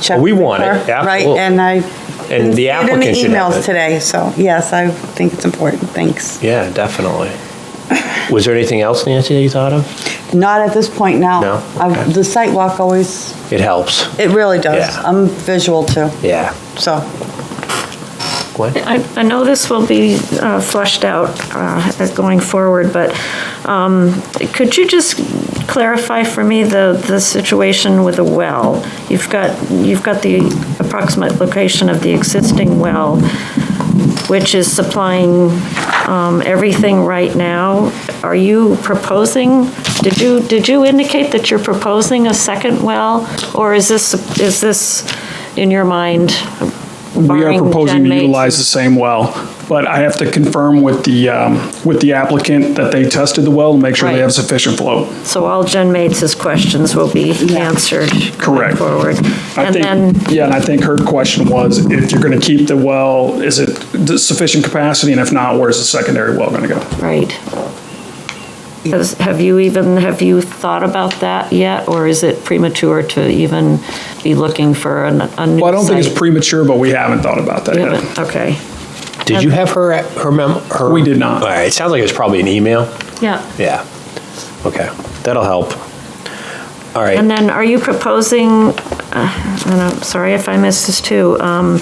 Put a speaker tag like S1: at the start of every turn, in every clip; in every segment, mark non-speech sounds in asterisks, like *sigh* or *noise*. S1: check.
S2: We want it,
S1: before, Right,
S2: absolutely.
S1: and I.
S2: And the applicant should have
S1: In the
S2: it.
S1: emails today, so yes, I think it's important, thanks.
S2: Yeah, definitely. Was there anything else, Nancy, that you thought of?
S1: Not at this point now.
S2: No?
S1: I've-
S2: Okay.
S1: The site walk always,
S2: It helps.
S1: it really does.
S2: Yeah.
S1: I'm visual too,
S2: Yeah.
S1: so.
S2: What?
S3: I, I know this will be uh, fleshed out uh, as going forward, but um, could you just clarify for me the, the situation with the well? You've got, you've got the approximate location of the existing well, which is supplying um, everything right now. Are you proposing, did you, did you indicate that you're proposing a second well? Or is this, is this, in your mind,
S4: We are
S3: barring
S4: proposing
S3: Gen
S4: to
S3: Mates?
S4: utilize the same well, but I have to confirm with the, um, with the applicant that they tested the well and make sure they
S3: Right.
S4: have sufficient flow.
S3: So all Jen Mates' questions will be answered going
S4: Correct.
S3: forward.
S4: I
S3: And
S4: think,
S3: then,
S4: yeah, and I think her question was, if you're going to keep the well, is it the sufficient capacity? And if not, where's the secondary well going to go?
S3: right. Has- Have you even, have you thought about that yet? Or is it premature to even be looking for an- a new site?
S4: Well, I don't think it's premature, but we haven't thought about that
S3: You
S4: yet.
S3: haven't? Okay,
S2: Did you have her, her memo? her-
S4: We did not.
S2: All right, it sounds like it was probably an email.
S3: yeah.
S2: Yeah. Okay, that'll help. All right.
S3: And then are you proposing, uh, and I'm sorry if I missed this too, um,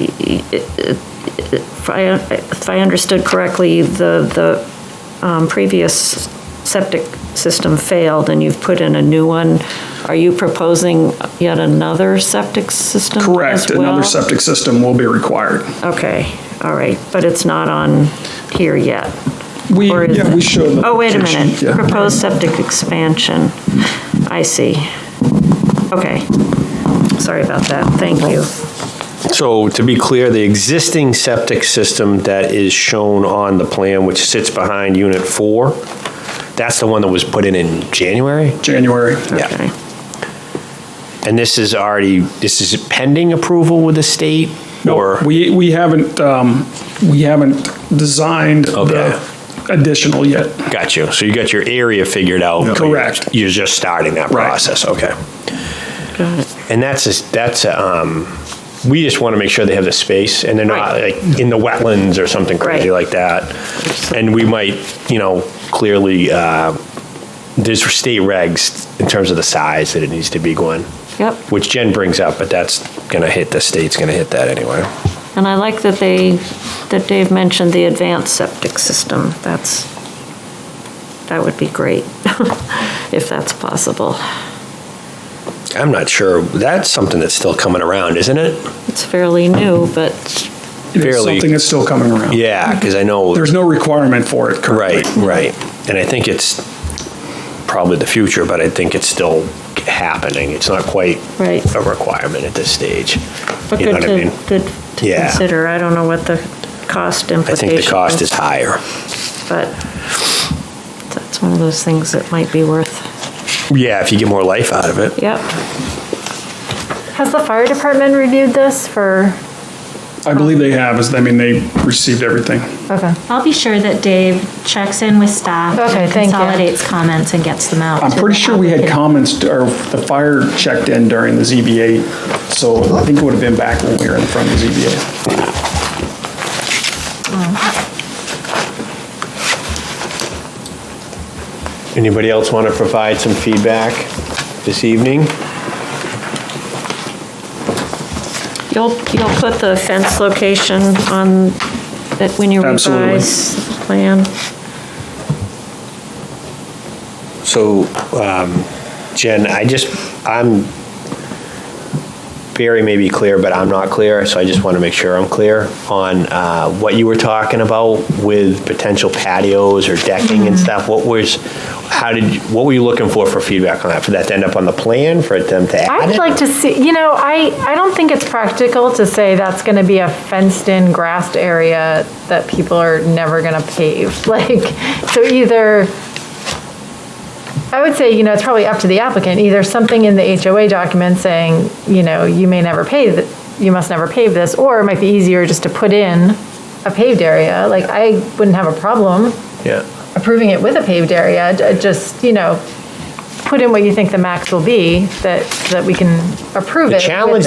S3: y- y- if I if I understood correctly, the, the um, previous septic system failed and you've put in a new one. Are you proposing yet another septic system as well?
S4: Correct, another septic system will be required.
S3: Okay, all right, but it's not on here yet?
S4: We,
S3: Or is
S4: yeah, we
S3: it?
S4: showed. the
S3: Oh, wait a
S4: location,
S3: minute.
S4: yeah.
S3: Proposed septic expansion. I see. Okay. Sorry about that. Thank you.
S2: So to be clear, the existing septic system that is shown on the plan, which sits behind Unit 4, that's the one that was put in in January?
S4: January.
S2: Yeah.
S3: Okay.
S2: And this is already, this is pending approval with the state?
S4: No,
S2: or-
S4: we, we haven't, um, we haven't designed
S2: Okay.
S4: the additional yet.
S2: Got you. So you got your area figured out. but you're-
S4: Correct.
S2: You're just starting that
S4: Right.
S2: process, okay.
S3: Got it.
S2: And that's, just- that's, um, we just want to make sure they have the space and they're not
S3: Right.
S2: like in the wetlands or something crazy
S3: Right.
S2: like that. And we might, you know, clearly, uh, there's state regs in terms of the size that it needs to be going,
S3: Yep.
S2: which Jen brings up, but that's going to hit, the state's going to hit that anyway.
S3: And I like that they, that Dave mentioned the advanced septic system. That's, that would be great, *laughs* if that's possible.
S2: I'm not sure. That's something that's still coming around, isn't it?
S3: It's fairly new, but,
S4: It is
S2: Fairly-
S4: something that's still coming around.
S2: Yeah, because I know.
S4: There's no requirement for it currently.
S2: Right, right. And I think it's probably the future, but I think it's still happening. It's not quite
S3: Right.
S2: a requirement at this stage.
S3: but
S2: You know
S3: good
S2: what I mean?
S3: to, good to
S2: Yeah.
S3: consider. I don't know what the cost
S2: I
S3: implication
S2: think the cost is higher.
S3: but that's one of those things that might be worth,
S2: Yeah, if you get more life out of it.
S3: yep.
S5: Has the fire department reviewed this for,
S4: I believe they have, is, I mean, they received everything.
S5: okay.
S6: I'll be sure that Dave checks in with staff.
S5: Okay,
S6: and
S5: thank you.
S6: Consolidates comments and gets them out.
S4: I'm
S6: to
S4: pretty
S6: the
S4: sure we had
S6: applicant.
S4: comments, or the fire checked in during the ZBA, so I think it would have been back when we were in front of the ZBA.
S2: Anybody else want to provide some feedback this evening?
S3: You'll, you'll put the fence location on, that when you
S4: Absolutely.
S3: revise the plan?
S2: So, um, Jen, I just, I'm, Barry may be clear, but I'm not clear, so I just want to make sure I'm clear on uh, what you were talking about with potential patios or decking and stuff. What was, how did, you- what were you looking for for feedback on that? For that to end up on the plan, for them to add
S5: I'd
S2: it?
S5: like to see, you know, I, I don't think it's practical to say that's going to be a fenced-in, grassed area that people are never going to pave. *laughs* Like, so either, I would say, you know, it's probably up to the applicant, either something in the HOA document saying, you know, you may never pave, th- you must never pave this, or it might be easier just to put in a paved area. Like, I wouldn't have a problem
S2: Yeah,
S5: approving it with a paved area, it just, you know, put in what you think the max will be, that, that we can approve it.
S2: The
S5: with
S2: challenge
S5: the-